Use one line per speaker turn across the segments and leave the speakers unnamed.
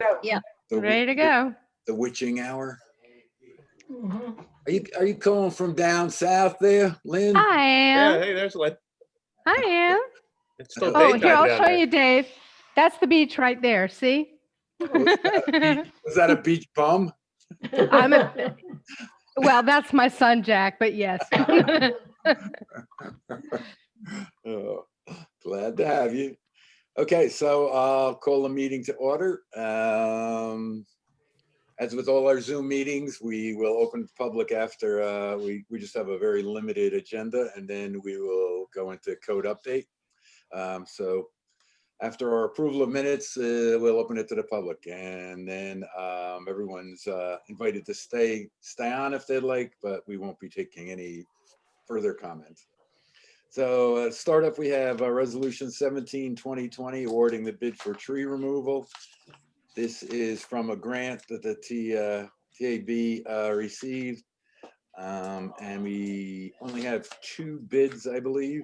Go.
The wi-
Ready to go.
The witching hour. Are you, are you calling from down south there, Lynn?
I
Yeah,
am.
hey, there's one.
I am.
It's still
Oh,
daytime
here, I'll
down
show
there.
you, Dave. That's the beach right there. See? well,
Was that a beach bum?
I'm a- that's my son, Jack, but yes.
Oh, Glad to have you. Okay, so I'll call the meeting to order. Um, As with all our Zoom meetings, we will open to public after, uh, we, we just have a very limited agenda and then we will go into code update. Um, So after our approval of minutes, uh, we'll open it to the public and then um, everyone's uh, invited to stay, stay on if they'd like, but we won't be taking any further comments. So uh, start up, we have uh, Resolution 17, 2020, awarding the bid for tree removal. This is from a grant that the T, uh, TAB uh, received. Um, And we only have two bids, I believe.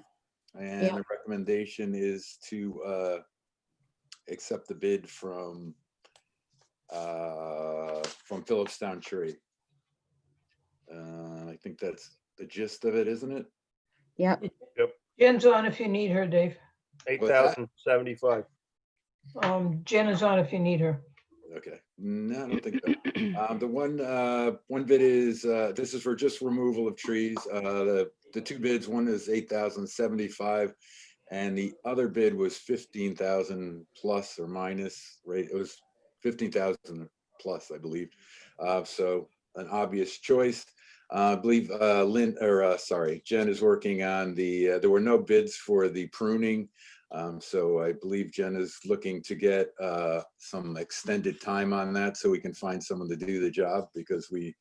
And
Yeah.
the recommendation is to uh, accept the bid from uh, from Phillips Town Tree. Uh, I think that's the gist of it, isn't it?
Yep.
Jen's on if you need her, Dave.
Eight
What's that?
thousand seventy-five.
Um, Jen is on if you need her.
Okay, no, I don't think so. Um, the one, uh, one bid is, uh, this is for just removal of trees. Uh, the, the two bids, one is eight thousand seventy-five. And the other bid was fifteen thousand plus or minus, right? It was fifteen thousand plus, I believe. Uh, so an obvious choice. Uh, I believe, uh, Lynn, or, uh, sorry, Jen is working on the, uh, there were no bids for the pruning. Um, so I believe Jen is looking to get, uh, some extended time on that so we can find someone to do the job because we,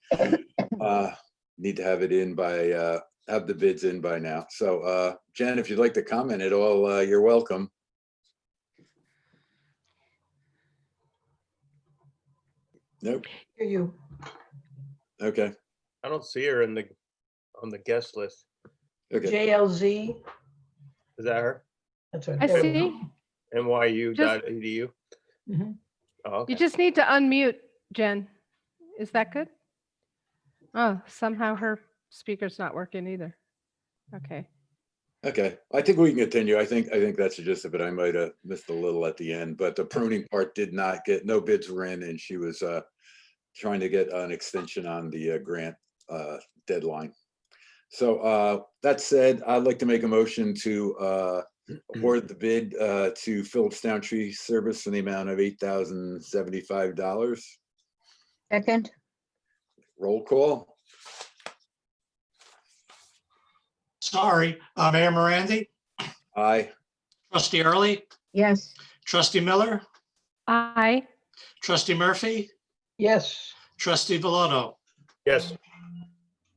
uh, need to have it in by, uh, have the bids in by now. So, uh, Jen, if you'd like to comment at all, uh, you're welcome. Nope,
Hear you.
okay,
I don't see her in the, on the guest list.
okay.
JLZ.
Is that her?
That's right.
I
there we go.
see.
NYU
Just-
dot edu?
Mhm.
Oh,
You
okay.
just need to unmute, Jen. Is that good? Oh, somehow her speaker's not working either. Okay.
Okay, I think we can continue. I think, I think that's the gist of it. I might have missed a little at the end, but the pruning part did not get, no bids were in and she was uh trying to get an extension on the uh, grant uh deadline. So uh that said, I'd like to make a motion to uh award the bid uh to Phillips Town Tree Service in the amount of eight thousand seventy-five dollars.
Second,
Roll call.
Sorry, uh, Mayor Morandi,
Aye.
trustee Early,
yes,
trustee Miller,
I,
trustee Murphy,
Yes,
trustee Bellotto.
Yes,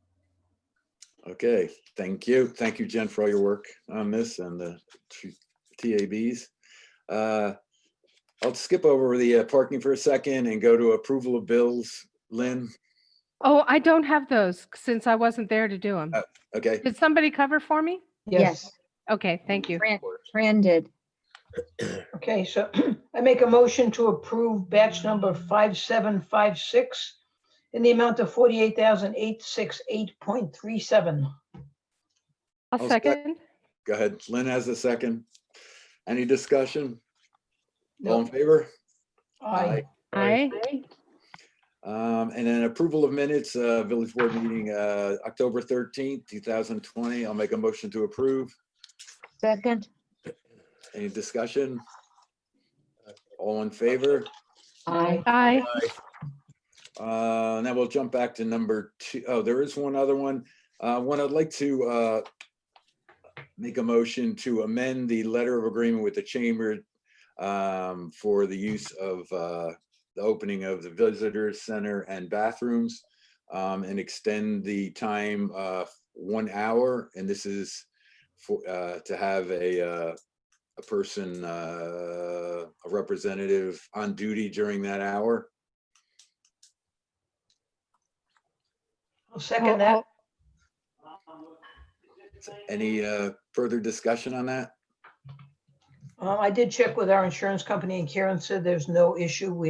Okay, thank you. Thank you, Jen, for all your work on this and the t- TABs. Uh, I'll skip over the uh, parking for a second and go to approval of bills. Lynn,
oh, I don't have those since I wasn't there to do them.
Uh, okay,
Did somebody cover for me?
yes.
yes.
Okay, thank you.
Fran Fran did.
Okay, so I make a motion to approve batch number 5756 in the amount of 48,868.37.
I'll
I'll sec-
second.
go ahead. Lynn has a second. Any discussion? All in
No,
favor?
Aye.
I,
Um, and then approval of minutes, uh, village board meeting, uh, October thirteenth, two thousand twenty. I'll make a motion to approve.
Second,
Any discussion? All in favor?
I,
I,
Uh, Now we'll jump back to number two. Oh, there is one other one. Uh, One I'd like to uh, make a motion to amend the letter of agreement with the chamber um, for the use of uh, the opening of the visitor center and bathrooms um, and extend the time uh, one hour. And this is for, uh, to have a, uh, a person, uh, a representative on duty during that hour.
I'll
I'll-
second that.
Any uh, further discussion on that?
Um, I did check with our insurance company and Karen said there's no issue. We